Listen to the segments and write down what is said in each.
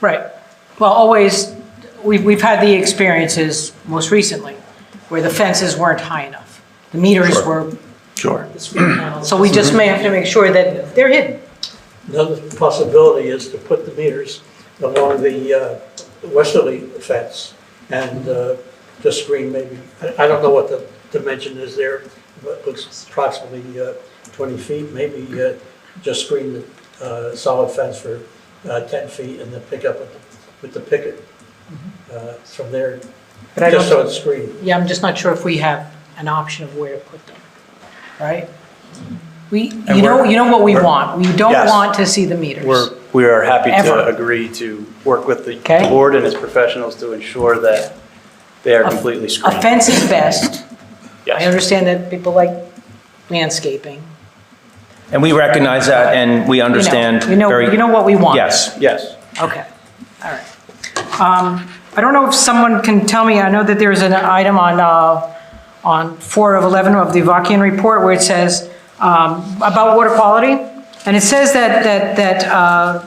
Right. Well, always, we've, we've had the experiences most recently where the fences weren't high enough. The meters Sure. were, Sure. so we just may have to make sure that they're hidden. Another possibility is to put the meters along the uh, westerly fence and uh, just screen maybe, I I don't know what the dimension is there, but it looks approximately uh, 20 feet, maybe uh, just screen the uh, solid fence for uh, 10 feet and then pick up with the- with the picket uh, from there, Mm-hmm. But I just so don't, it's screened. yeah, I'm just not sure if we have an option of where to put them, right? We, And you know, we're- you know what we we're- want. We don't Yes. want to see the meters. We're, we are happy Ever. to agree to work with the Okay. board and its professionals to ensure that they are A- completely A screened. fence is best. I Yes. understand that people like landscaping. And we recognize that, and we You know, understand You know, very... you know what we want. Yes. Yes. Okay, all right. Um, I don't know if someone can tell me, I know that there's an item on, uh, on 4 of 11 of the Vakian report where it says um, about water quality, and it says that, that, that uh,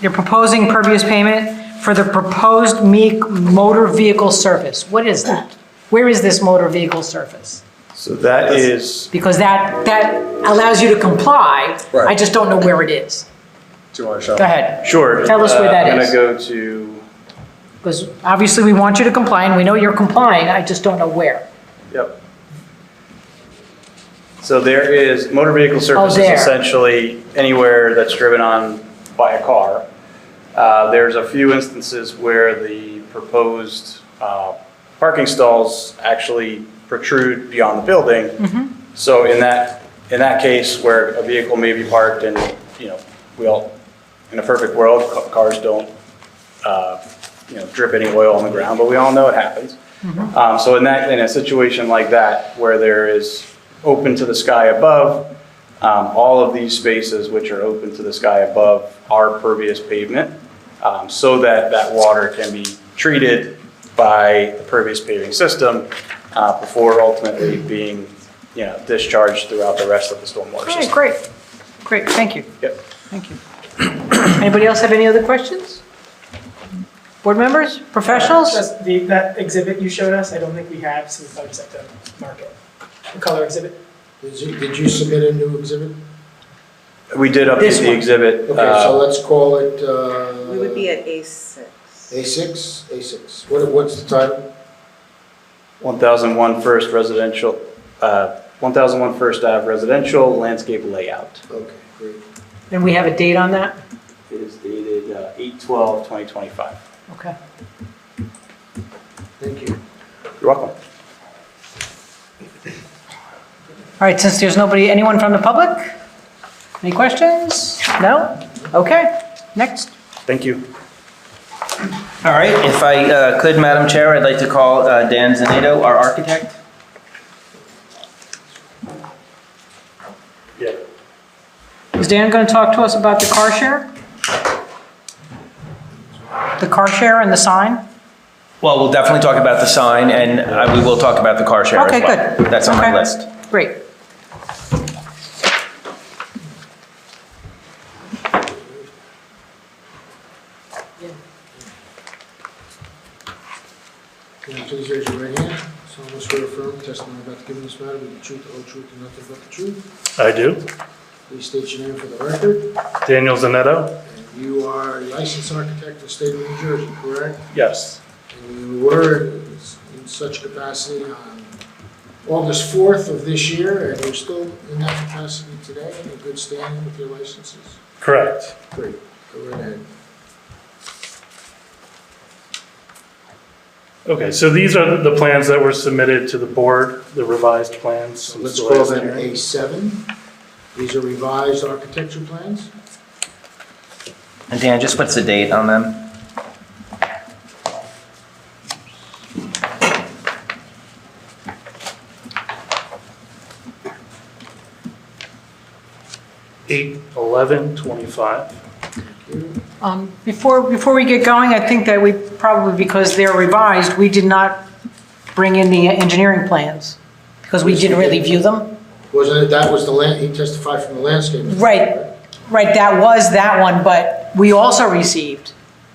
you're proposing pervious payment for the proposed me- motor vehicle surface. What is that? Where is this motor vehicle surface? So that is, Because that, that allows you to comply, I Right. just don't know where it is. Do you want to show? Go ahead. sure. Tell us where uh, that is. I'm going to go to, Because obviously, we want you to comply, and we know you're complying, I just don't know where. yep. So there is, motor vehicle surface there. is essentially anywhere that's driven on by a car. Uh, There's a few instances where the proposed uh, parking stalls actually protrude beyond the building. So in that, in that case where a vehicle may be parked and, you know, we all, in a perfect world, ca- cars don't, uh, you know, drip any oil on the ground, but we all know it happens. Um, So in that, in a situation like that, where there is open to the sky above, um, All of these spaces which are open to the sky above are pervious pavement, um, so that that water can be treated by the pervious paving system uh, before ultimately being, you know, discharged throughout the rest of the stormwater Okay, system. great, great, thank you, Yep. thank you. Anybody else have any other questions? Board members, professionals? Just the, that exhibit you showed us, I don't think we have, so we probably just have to mark it. The color exhibit. Did you, did you submit a new exhibit? We did This update the one. exhibit. Okay, uh, so let's call it, uh. We would be at A6. A6, A6. What, what's the title? 1001 First Residential, uh, 1001 First Ave Residential Landscape Layout Okay, great. And we have a date on that? It is dated uh, 8/12/2025. Okay. Thank you. You're welcome. All right, since there's nobody, anyone from the public? Any questions? No? Okay, next. Thank you. All right, if I uh, could, Madam Chair, I'd like to call uh, Dan Zanato, our architect. Yeah. Is Dan going to talk to us about the car share? The car share and the sign? Well, we'll definitely talk about the sign, and uh, we will talk about the car share as Okay, well. good. That's on my Okay. list. Great. Can you please raise your right hand? Solemnly swear or affirm testimony about to give in this matter with the truth, the whole truth, and nothing but the truth. I do. Please state your name for the record. Daniel Zanetto? And you are a licensed architect in the state of New Jersey, correct? Yes. And you were in such capacity on August 4th of this year, and you're still in that capacity today, in good standing with your licenses? Correct. Great, go right ahead. Okay, so these are the plans that were submitted to the board, the revised plans. So since let's the call last that hearing. A7. These are revised architecture plans? And Dan, just what's the date on them? Eight, eleven, twenty-five. Thank you. Um, Before, before we get going, I think that we probably, because they're revised, we did not bring in the engineering plans, because we didn't really view them. Wasn't it, that was the land, he testified from the landscape? Right, right, that was that one, but we also received